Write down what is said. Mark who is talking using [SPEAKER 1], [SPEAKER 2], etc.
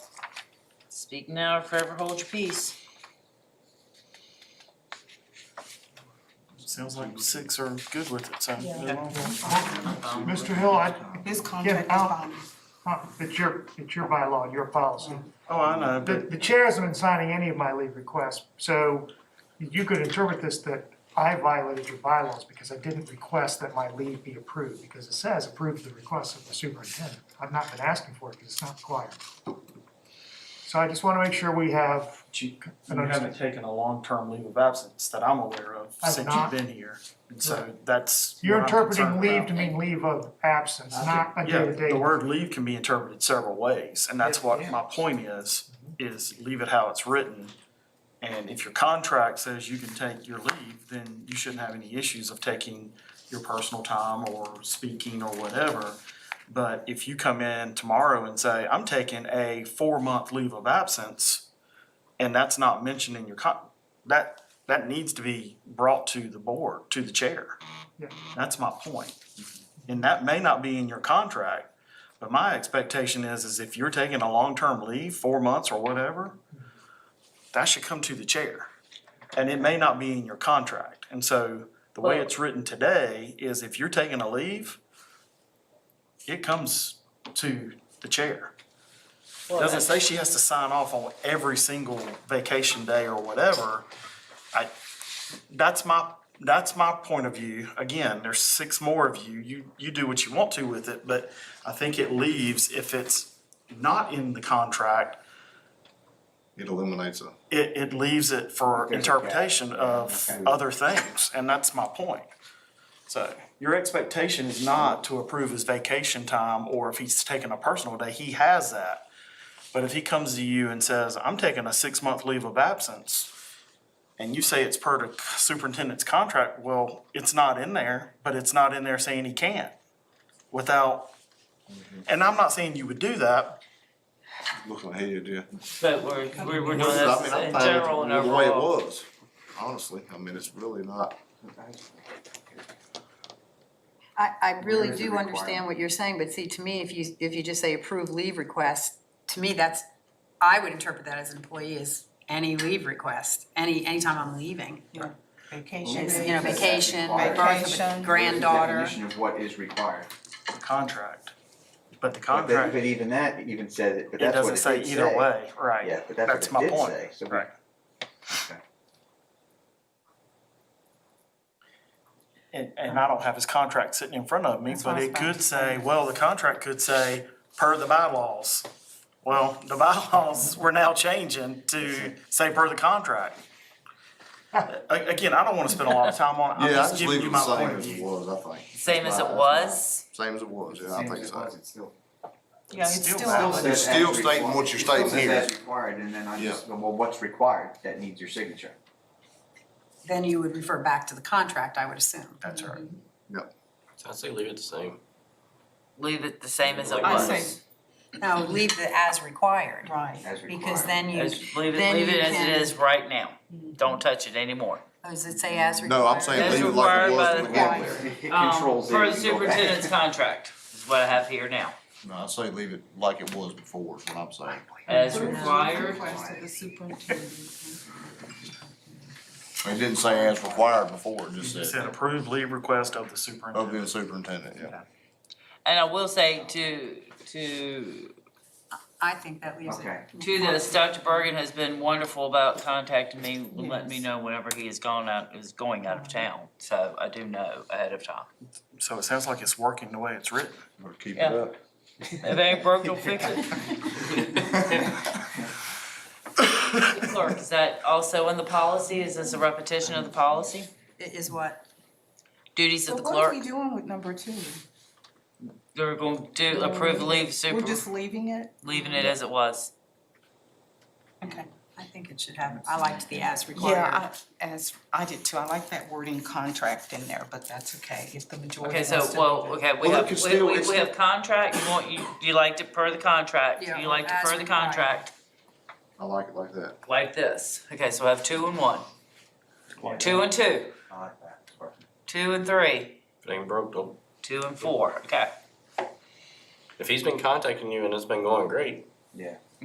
[SPEAKER 1] Speak now or forever hold your peace.
[SPEAKER 2] Sounds like six are good with it, so.
[SPEAKER 3] Yeah.
[SPEAKER 4] Mr. Hill, I,
[SPEAKER 3] His contract is
[SPEAKER 4] I'll-
[SPEAKER 3] binding.
[SPEAKER 4] uh, it's your, it's your bylaw, your policy.
[SPEAKER 2] Oh, I know,
[SPEAKER 4] The,
[SPEAKER 2] but
[SPEAKER 4] the chair hasn't been signing any of my leave requests, so you could interpret this that I violated your bylaws because I didn't request that my leave be approved, because it says approve the request of the superintendent. I've not been asking for it because it's not required. So I just want to make sure we have,
[SPEAKER 2] you, you haven't taken a long-term leave of absence that I'm aware of
[SPEAKER 4] I've
[SPEAKER 2] since you've
[SPEAKER 4] not.
[SPEAKER 2] been here. And so that's
[SPEAKER 4] you're
[SPEAKER 2] what I'm
[SPEAKER 4] interpreting
[SPEAKER 2] concerned
[SPEAKER 4] leave
[SPEAKER 2] about.
[SPEAKER 4] to mean leave of absence, not a
[SPEAKER 2] Yeah,
[SPEAKER 4] day-to-day.
[SPEAKER 2] the word leave can be interpreted several ways, and that's what my point is, is leave it how it's written. And if your contract says you can take your leave, then you shouldn't have any issues of taking your personal time or speaking or whatever. But if you come in tomorrow and say, I'm taking a four-month leave of absence, and that's not mentioned in your con, that, that needs to be brought to the board, to the chair.
[SPEAKER 4] Yeah.
[SPEAKER 2] That's my point. And that may not be in your contract, but my expectation is, is if you're taking a long-term leave, four months or whatever, that should come to the chair. And it may not be in your contract. And so the way
[SPEAKER 1] Well-
[SPEAKER 2] it's written today is if you're taking a leave, it comes to the chair.
[SPEAKER 1] Well,
[SPEAKER 2] Doesn't say she has to sign off on every single vacation day or whatever. I, that's my, that's my point of view. Again, there's six more of you. You, you do what you want to with it, but I think it leaves, if it's not in the contract,
[SPEAKER 5] It eliminates a,
[SPEAKER 2] it, it leaves it for
[SPEAKER 6] There's a gap.
[SPEAKER 2] interpretation of
[SPEAKER 6] Okay.
[SPEAKER 2] other things, and that's my point. So your expectation is not to approve his vacation time, or if he's taking a personal day, he has that. But if he comes to you and says, I'm taking a six-month leave of absence, and you say it's per the superintendent's contract, well, it's not in there, but it's not in there saying he can't without, and I'm not saying you would do that,
[SPEAKER 5] looking ahead, yeah.
[SPEAKER 1] But we're, we're, we're doing
[SPEAKER 5] I
[SPEAKER 1] this
[SPEAKER 5] mean, I'm
[SPEAKER 1] in
[SPEAKER 5] fine with
[SPEAKER 1] general and
[SPEAKER 5] The way it
[SPEAKER 1] overall.
[SPEAKER 5] was, honestly, I mean, it's really not,
[SPEAKER 7] I, I really
[SPEAKER 6] There is a
[SPEAKER 7] do understand
[SPEAKER 6] requirement.
[SPEAKER 7] what you're saying, but see, to me, if you, if you just say approve leave request, to me, that's, I would interpret that as an employee as any leave request, any, anytime I'm leaving.
[SPEAKER 3] Vacation.
[SPEAKER 7] It's, you know, vacation,
[SPEAKER 6] Vacation.
[SPEAKER 7] birth of a granddaughter.
[SPEAKER 6] Definition of what is required.
[SPEAKER 2] the contract. But the
[SPEAKER 6] But
[SPEAKER 2] contract.
[SPEAKER 6] that- but even that even says it, but
[SPEAKER 2] It
[SPEAKER 6] that's what
[SPEAKER 2] doesn't
[SPEAKER 6] it did
[SPEAKER 2] say
[SPEAKER 6] say.
[SPEAKER 2] either way, right?
[SPEAKER 6] Yeah, but
[SPEAKER 2] That's
[SPEAKER 6] that's
[SPEAKER 2] my
[SPEAKER 6] what it did
[SPEAKER 2] point.
[SPEAKER 6] say, so we.
[SPEAKER 2] Right.
[SPEAKER 6] Okay.
[SPEAKER 2] And, and I don't have his contract sitting in front of me,
[SPEAKER 3] That's what
[SPEAKER 2] but
[SPEAKER 3] I was
[SPEAKER 2] it
[SPEAKER 3] about
[SPEAKER 2] could
[SPEAKER 3] to
[SPEAKER 2] say, well, the contract could say, per the bylaws. Well, the bylaws, we're now changing to say per the contract. A- Again, I don't wanna spend a lot of time on it, I'm
[SPEAKER 5] yeah, I
[SPEAKER 2] just
[SPEAKER 5] just
[SPEAKER 2] giving
[SPEAKER 5] leave
[SPEAKER 2] you
[SPEAKER 5] it
[SPEAKER 2] my
[SPEAKER 5] the same
[SPEAKER 2] point of
[SPEAKER 5] as it
[SPEAKER 2] view.
[SPEAKER 5] was, I think,
[SPEAKER 1] Same as it was,
[SPEAKER 5] same as it was, yeah, I
[SPEAKER 6] Same
[SPEAKER 5] think
[SPEAKER 6] as it
[SPEAKER 5] so.
[SPEAKER 6] was, it's still.
[SPEAKER 3] Yeah, it's
[SPEAKER 2] Still
[SPEAKER 3] still.
[SPEAKER 2] valid.
[SPEAKER 6] says
[SPEAKER 5] You're
[SPEAKER 6] as
[SPEAKER 5] still stating
[SPEAKER 6] required.
[SPEAKER 5] what you're
[SPEAKER 6] It still
[SPEAKER 5] stating
[SPEAKER 6] says
[SPEAKER 5] here.
[SPEAKER 6] as required, and then I just, go, well, what's required, that needs your signature.
[SPEAKER 7] Then you would refer back to the contract, I would assume.
[SPEAKER 2] That's right.
[SPEAKER 8] I'd say leave it the same.
[SPEAKER 1] leave it the same as it
[SPEAKER 3] I
[SPEAKER 1] was.
[SPEAKER 3] say-
[SPEAKER 7] No, leave the as required,
[SPEAKER 3] Right.
[SPEAKER 6] As
[SPEAKER 7] because
[SPEAKER 6] required.
[SPEAKER 7] then you,
[SPEAKER 1] As- Leave it,
[SPEAKER 7] Then
[SPEAKER 1] leave
[SPEAKER 7] you
[SPEAKER 1] it as it
[SPEAKER 7] can-
[SPEAKER 1] is right now. Don't touch it anymore.
[SPEAKER 7] oh, does it say as required?
[SPEAKER 5] No, I'm saying
[SPEAKER 1] That's
[SPEAKER 5] leave it like it
[SPEAKER 1] required by
[SPEAKER 5] was
[SPEAKER 1] the
[SPEAKER 5] when we
[SPEAKER 7] bylaws.
[SPEAKER 5] were there.
[SPEAKER 6] It
[SPEAKER 1] Um,
[SPEAKER 6] controls it.
[SPEAKER 1] Per the
[SPEAKER 6] you go back.
[SPEAKER 1] superintendent's contract is what I have here now.
[SPEAKER 5] No, I say leave it like it was before, is what I'm saying.
[SPEAKER 1] As
[SPEAKER 3] Approve
[SPEAKER 1] required,
[SPEAKER 3] Request of the superintendent.
[SPEAKER 5] It didn't say as required before,
[SPEAKER 2] It
[SPEAKER 5] it just
[SPEAKER 2] said
[SPEAKER 5] said
[SPEAKER 2] approved leave request of the
[SPEAKER 5] of
[SPEAKER 2] superintendent.
[SPEAKER 5] the superintendent, yeah.
[SPEAKER 1] and I will say to, to
[SPEAKER 7] I think that leaves it.
[SPEAKER 6] Okay.
[SPEAKER 1] To this, Dr. Bergen has been wonderful about contacting me, letting me know whenever he is gone out, is going out of town. So I do know ahead of time.
[SPEAKER 2] So it sounds like it's working the way it's written.
[SPEAKER 5] Or keep it
[SPEAKER 1] Yeah.
[SPEAKER 5] up.
[SPEAKER 1] If it ain't broke, don't fix it. Clerk, is that also in the policy? Is this a repetition of the policy?
[SPEAKER 7] It is what,
[SPEAKER 1] Duties
[SPEAKER 3] So
[SPEAKER 1] of the
[SPEAKER 3] what are
[SPEAKER 1] clerk,
[SPEAKER 3] we doing with number two?
[SPEAKER 1] they're going to do, approve leave
[SPEAKER 3] We're
[SPEAKER 1] super,
[SPEAKER 3] just leaving it?
[SPEAKER 1] leaving it as it was.
[SPEAKER 3] Okay.
[SPEAKER 7] I think it should have, I liked the as required.
[SPEAKER 3] Yeah, I, as, I did too. I like that wording contract in there, but that's okay if the majority
[SPEAKER 1] Okay,
[SPEAKER 3] wants
[SPEAKER 1] so,
[SPEAKER 3] to
[SPEAKER 1] well,
[SPEAKER 3] leave it.
[SPEAKER 1] okay, we
[SPEAKER 5] Well,
[SPEAKER 1] have,
[SPEAKER 5] look, it's
[SPEAKER 1] we,
[SPEAKER 5] still-
[SPEAKER 1] we,
[SPEAKER 5] it's
[SPEAKER 1] we have contract, you want, you, you liked it per the contract,
[SPEAKER 7] Yeah,
[SPEAKER 1] you liked it
[SPEAKER 7] as
[SPEAKER 1] per the
[SPEAKER 7] required.
[SPEAKER 1] contract,
[SPEAKER 5] I like it like that.
[SPEAKER 1] like this. Okay, so I have two and one, two and two.
[SPEAKER 6] I like that.
[SPEAKER 1] Two and three,
[SPEAKER 8] If it ain't broke, don't.
[SPEAKER 1] two and four, okay.
[SPEAKER 8] If he's been contacting you and it's been going great,
[SPEAKER 6] Yeah.